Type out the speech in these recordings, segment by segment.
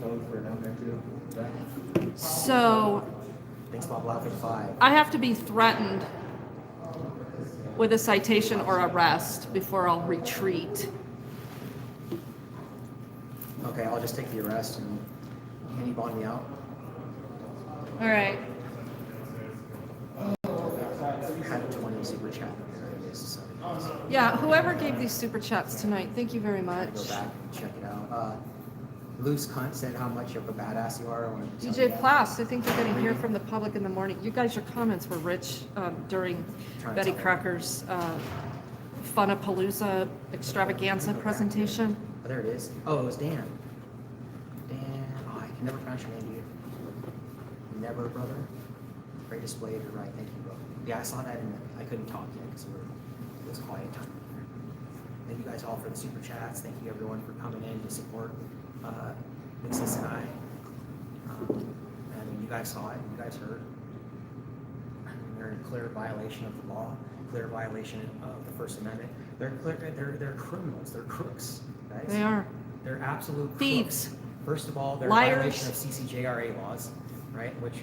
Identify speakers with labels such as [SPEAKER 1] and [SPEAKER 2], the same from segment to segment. [SPEAKER 1] code for down there too. Right?
[SPEAKER 2] So
[SPEAKER 1] Thanks, Bob Laugh five.
[SPEAKER 2] I have to be threatened with a citation or arrest before I'll retreat.
[SPEAKER 1] Okay, I'll just take the arrest and can you bond me out?
[SPEAKER 2] All right.
[SPEAKER 1] Had a twenty super chat. There it is. So you guys can
[SPEAKER 2] Yeah, whoever gave these super chats tonight, thank you very much.
[SPEAKER 1] Go back and check it out. Uh, Loose cunt said how much of a badass you are. when-
[SPEAKER 2] DJ Plast, I think you're going to hear from the public in the morning. You guys, your comments were rich um, during
[SPEAKER 1] Trying to
[SPEAKER 2] Betty
[SPEAKER 1] tell you.
[SPEAKER 2] Crocker's uh, Funapalooza extravaganza presentation.
[SPEAKER 1] Oh, there it is. Oh, it was Dan. Dan. Oh, I can never pronounce your name, dude. Never, brother. Great display of your right. Thank you, bro. Yeah, I saw that and I couldn't talk yet because we were, it was quiet time. Thank you guys all for the super chats. Thank you everyone for coming in to support uh, Mixes and I. Um, I mean, you guys saw it. You guys heard. They're in clear violation of the law, clear violation of the First Amendment. They're clear. They're they're criminals. They're crooks, guys.
[SPEAKER 2] They are.
[SPEAKER 1] They're absolute crooks.
[SPEAKER 2] Thieves.
[SPEAKER 1] First of all, they're a
[SPEAKER 2] Liars.
[SPEAKER 1] violation of CCJRA laws, right? Which,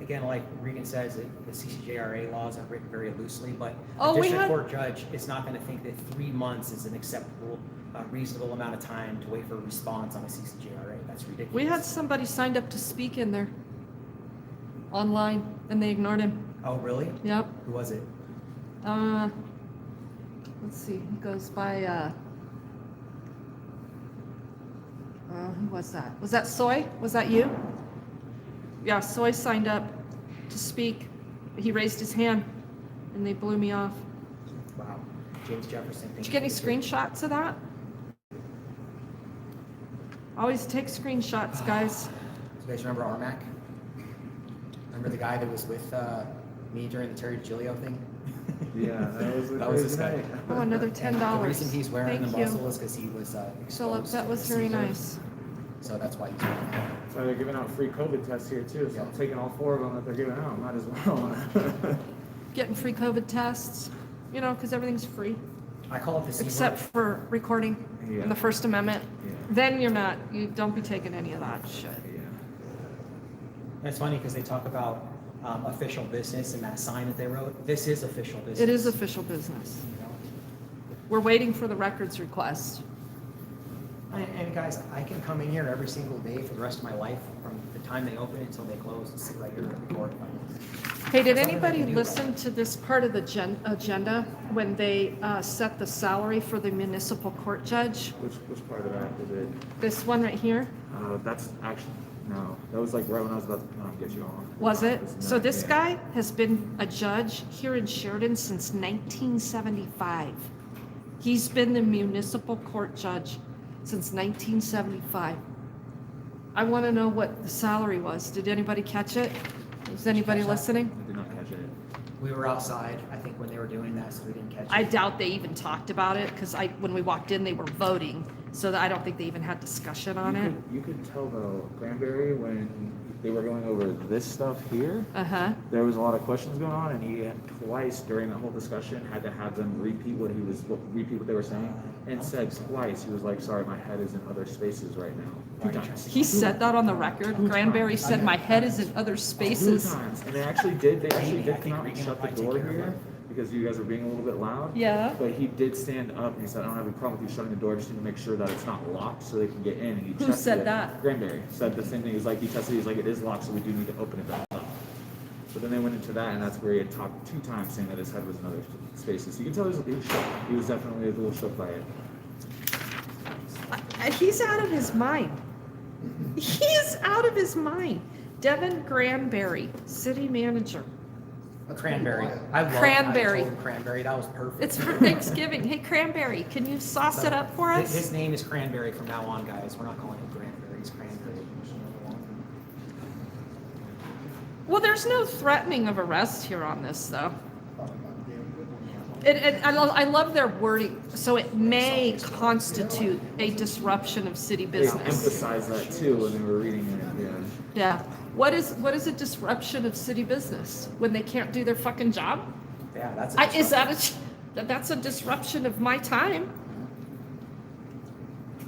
[SPEAKER 1] again, like Regan says, the the CCJRA laws are written very loosely, but
[SPEAKER 2] Oh,
[SPEAKER 1] a
[SPEAKER 2] we
[SPEAKER 1] district
[SPEAKER 2] had-
[SPEAKER 1] court judge is not going to think that three months is an acceptable, uh, reasonable amount of time to wait for a response on a CCJRA. That's ridiculous.
[SPEAKER 2] We had somebody signed up to speak in there online and they ignored him.
[SPEAKER 1] Oh, really?
[SPEAKER 2] Yep.
[SPEAKER 1] Who was it?
[SPEAKER 2] Uh, let's see. He goes by. Uh, uh, who was that? Was that Soy? Was that you? Yeah, Soy signed up to speak. He raised his hand, and they blew me off.
[SPEAKER 1] Wow. James Jefferson.
[SPEAKER 2] Did you get any screenshots of that? Always take screenshots, guys.
[SPEAKER 1] You guys remember Armac? Remember the guy that was with uh, me during the Terry Gilio thing?
[SPEAKER 3] Yeah, that was a
[SPEAKER 1] That was
[SPEAKER 3] crazy
[SPEAKER 1] this guy.
[SPEAKER 3] night.
[SPEAKER 2] Oh, another
[SPEAKER 1] And
[SPEAKER 2] ten dollars.
[SPEAKER 1] The reason he's wearing
[SPEAKER 2] Thank
[SPEAKER 1] the
[SPEAKER 2] you,
[SPEAKER 1] muscle is because he was uh,
[SPEAKER 2] Philip.
[SPEAKER 1] exposed
[SPEAKER 2] That
[SPEAKER 1] to
[SPEAKER 2] was
[SPEAKER 1] the
[SPEAKER 2] very
[SPEAKER 1] Caesar.
[SPEAKER 2] nice.
[SPEAKER 1] So that's why he's wearing it.
[SPEAKER 3] So they're giving out free COVID tests here too, so I'm
[SPEAKER 1] Yeah.
[SPEAKER 3] taking all four of them that they're giving out, might as well.
[SPEAKER 2] Getting free COVID tests, you know, because everything's free.
[SPEAKER 1] I call it the C
[SPEAKER 2] Except
[SPEAKER 1] word.
[SPEAKER 2] for recording and
[SPEAKER 3] Yeah.
[SPEAKER 2] the First Amendment.
[SPEAKER 3] Yeah.
[SPEAKER 2] Then you're not, you don't be taking any of that shit.
[SPEAKER 3] Yeah.
[SPEAKER 1] And It's funny because they talk about um, official business and that sign that they wrote. This is official business.
[SPEAKER 2] It is official business.
[SPEAKER 1] you know?
[SPEAKER 2] We're waiting for the records request.
[SPEAKER 1] And, and guys, I can come in here every single day for the rest of my life, from the time they open until they close, and sit right here and record.
[SPEAKER 2] Hey, did
[SPEAKER 1] Something they
[SPEAKER 2] anybody
[SPEAKER 1] can do.
[SPEAKER 2] listen to this part of the gen- agenda when they uh, set the salary for the municipal court judge?
[SPEAKER 3] Which, which part of that was it?
[SPEAKER 2] This one right here,
[SPEAKER 3] Uh, that's actually, no, that was like right when I was about to um, get you on.
[SPEAKER 2] was it? So
[SPEAKER 3] not-
[SPEAKER 2] this
[SPEAKER 3] yeah.
[SPEAKER 2] guy has been a judge here in Sheridan since 1975. He's been the municipal court judge since 1975. I want to know what the salary was. Did anybody catch it? Was anybody
[SPEAKER 1] Catch that?
[SPEAKER 2] listening?
[SPEAKER 3] I did not catch it.
[SPEAKER 1] We were outside, I think, when they were doing that, so we didn't catch it.
[SPEAKER 2] I doubt they even talked about it because I, when we walked in, they were voting. So that I don't think they even had discussion on
[SPEAKER 3] you
[SPEAKER 2] it.
[SPEAKER 3] Could, you could tell though, Granberry, when they were going over this stuff here,
[SPEAKER 2] Uh huh.
[SPEAKER 3] there was a lot of questions going on, and he had twice during the whole discussion had to have them repeat what he was what, repeat what they were saying, and said twice he was like, "Sorry, my head is in other spaces right now."
[SPEAKER 1] Why
[SPEAKER 3] Two
[SPEAKER 1] are you
[SPEAKER 3] times.
[SPEAKER 2] He said that on the record. Granberry said, "My head is in other
[SPEAKER 3] Two
[SPEAKER 2] spaces."
[SPEAKER 3] times, and they actually did. They actually
[SPEAKER 1] Maybe,
[SPEAKER 3] did
[SPEAKER 1] I
[SPEAKER 3] come
[SPEAKER 1] think
[SPEAKER 3] out and
[SPEAKER 1] Regan
[SPEAKER 3] shut the
[SPEAKER 1] might take
[SPEAKER 3] door
[SPEAKER 1] care of
[SPEAKER 3] here because you guys were being a little bit loud.
[SPEAKER 2] Yeah.
[SPEAKER 3] But he did stand up and he said, "I don't have a problem with you shutting the door. Just need to make sure that it's not locked so they can get in." And he
[SPEAKER 2] Who
[SPEAKER 3] tested
[SPEAKER 2] said
[SPEAKER 3] it.
[SPEAKER 2] that?
[SPEAKER 3] Granberry said the same thing. He's like, he tested. it. He's like, it is locked, so we do need to open it back up. So then they went into that, and that's where he had talked two times, saying that his head was in other spaces. So you can tell he was, he was, shook. He was definitely a little shook by it.
[SPEAKER 2] I- I- Uh, He's out of his mind. He is out of his mind. Devin Granberry, city manager.
[SPEAKER 1] A cranberry. I love
[SPEAKER 2] Cranberry.
[SPEAKER 1] I told him cranberry. That was perfect.
[SPEAKER 2] It's for Thanksgiving. Hey, Cranberry, can you sauce it up for
[SPEAKER 1] His- His
[SPEAKER 2] us?
[SPEAKER 1] name is Cranberry from now on, guys. We're not calling him Cranberry. He's Cranberry.
[SPEAKER 2] Well, there's no threatening of arrest here on this, though. It, it, I, love, I love their wording. So it may constitute a disruption of city
[SPEAKER 3] They
[SPEAKER 2] business.
[SPEAKER 3] emphasized that too when they were reading it. Yeah.
[SPEAKER 2] Yeah. What is what is a disruption of city business when they can't do their fucking job?
[SPEAKER 1] Yeah, that's. a
[SPEAKER 2] I, is
[SPEAKER 1] disruption.
[SPEAKER 2] that a that's a disruption of my time?